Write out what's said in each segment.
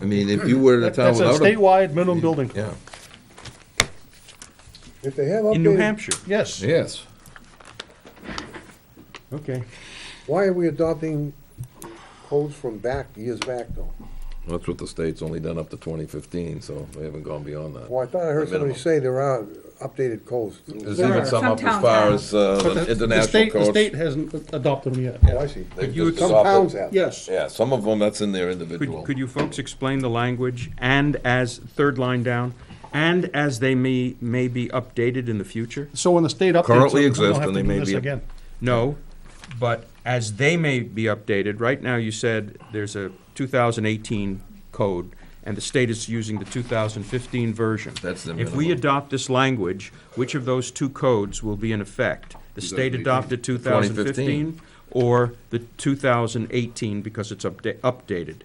I mean, if you were in a That- town That's a without a, statewide minimum building. yeah, If they have in New updated, Hampshire. Yes, yes. okay. why are we adopting codes from back, years back though? That's what the state's only done up to twenty fifteen, so they haven't gone beyond that. Well, I thought I heard The somebody minimum. say there are updated codes. There's There even are some some up as towns far have. as, uh, But the- the the international state- The codes. state hasn't adopted them yet. Oh, I see. They've you- just Some adopted- towns have. Yes, Yeah, some of them, that's in their Could, individual. could you folks explain the language and as, third line down, and as they may, may be updated in the future? so when the state updates. Currently them, we don't exist, have and to they do may this be- Again, No, but as they may be updated, right now you said there's a 2018 code, and the state is using the 2015 version. That's the If we minimum. adopt this language, which of those two codes will be in effect? The state 2018. adopted 2015 or the 2018 because it's upda- updated?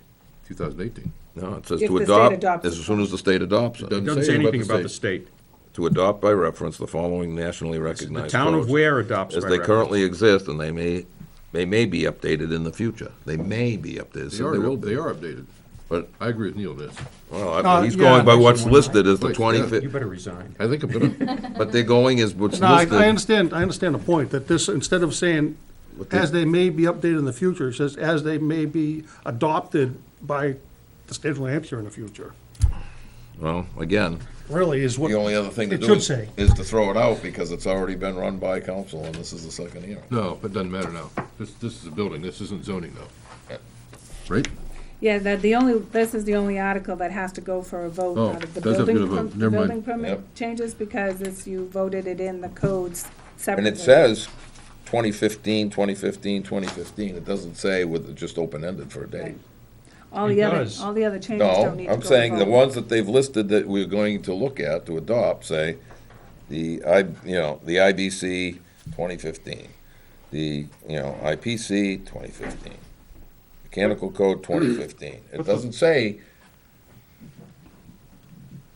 2018. No, it says If to the state adopt, adopts as soon as the state adopts it. It doesn't say anything about the state. To adopt by reference the following nationally The recognized town of codes Ware adopts by As they reference. currently exist, and they may, they may be updated in the future. They may be updated. They so are, they will old- be. they are updated. But, I agree with Neil, this. well, Uh, I- he's yeah, going by that's what's the one. listed as the Wait, twenty yeah. You fifth, better resign. I think I'm gonna, but they're going as what's no, I, I listed. understand, I understand the point, that this, instead of saying, as they may be updated in the future, it says, as they may be adopted by the state of New Hampshire in the future, Well, again, really is what. the only other thing to it do should is, say. is to throw it out, because it's already been run by council, and this is the second hearing. no, it doesn't matter now. This, this is a building, this isn't zoning though. Right? Yeah, that the only, this is the only article that has to go for a vote Oh, out of the does have to go to building, vote. perm- Never mind. building Yep. permit changes because it's, you voted it in the codes And separately. it says 2015, 2015, 2015. it doesn't say with, just open-ended for a date. All It the other, does. all the other changes don't No, need to go I'm to saying the vote. ones that they've listed that we're going to look at to adopt, say, the I, you know, the IBC twenty fifteen, the, you know, IPC twenty fifteen, Mechanical Code twenty fifteen. It doesn't say,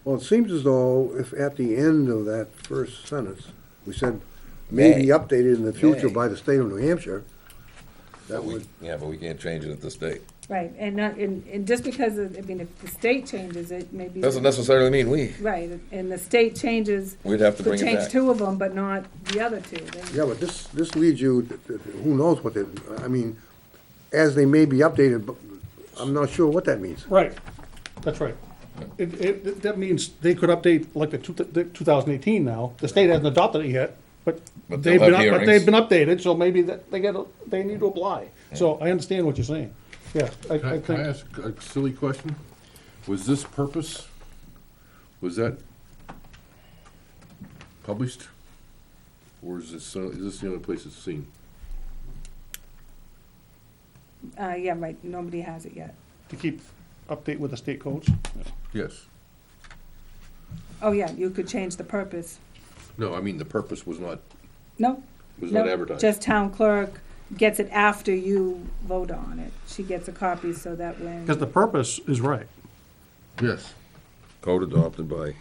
Well, it seems as though if at the end of that first sentence, we said may be May. updated in the future May. by the state of New Hampshire, that we- would, yeah, but we can't change it at this date. Right, and not, and, and just because, of- I mean, if the state changes it, maybe. Doesn't necessarily mean we, Right, and the state changes. We'd have to bring it Could back. change two of them, but not the other two. Then- yeah, but this, this leads you, to- to- to who knows what they, I mean, as they may be updated, but I'm not sure what that means. Right, that's right. It, it, that means they could update, like the two, the two thousand eighteen now, the state hasn't adopted it yet, but But they've they'll been, have up- but they've hearings. been updated, so maybe that, they get, a- they need to apply. So I understand what you're saying, yeah, I, Can I I, can I think, ask a silly question? Was this purpose, was that published? Or is this, uh, is this the only place it's seen? Uh, yeah, right, nobody has it yet. to keep update with the state codes. Yes. Oh, yeah, you could change the purpose. No, I mean, the purpose was not, No. was not no, advertised. Just town clerk gets it after you vote on it. She gets a copy so that when. Because the purpose is right. Yes. code adopted by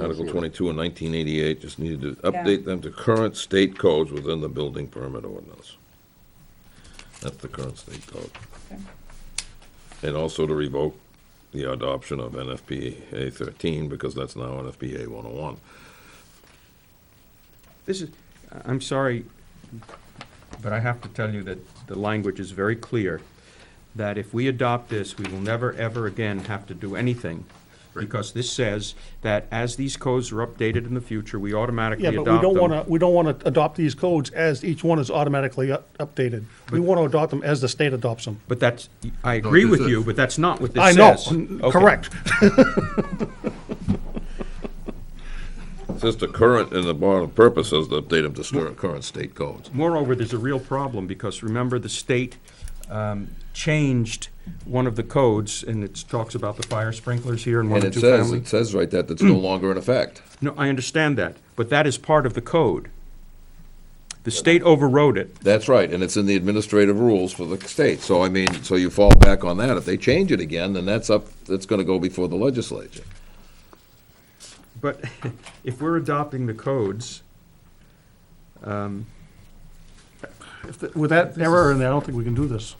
Article twenty-two in nineteen eighty-eight, just needed to update them to current state codes within the building permit ordinance. That's the current state code. Okay. And also to revoke the adoption of NFPA thirteen, because that's now NFPA one oh one. This is, I- I'm sorry, but I have to tell you that the language is very clear, that if we adopt this, we will never, ever again have to do anything. Because this says that as these codes are updated in the future, we automatically Yeah, adopt but them. we don't wanna, we don't wanna adopt these codes as each one is automatically u- updated. We wanna adopt them as the state adopts them. But that's, I agree this with is- you, but that's not what this I know, says. n- Okay. correct. It says the current, in the bottom purpose says to update them to stir- current state codes. Moreover, there's a real problem, because remember, the state um, changed one of the codes, and it talks about the fire sprinklers here and one And or it two says, family. it says right that, that's no longer in effect. No, I understand that, but that is part of the code. The state overrode it. That's right, and it's in the administrative rules for the state, so I mean, so you fall back on that, if they change it again, then that's up, that's gonna go before the legislature. But if we're adopting the codes, If the- With that error in there, I don't think we can do this.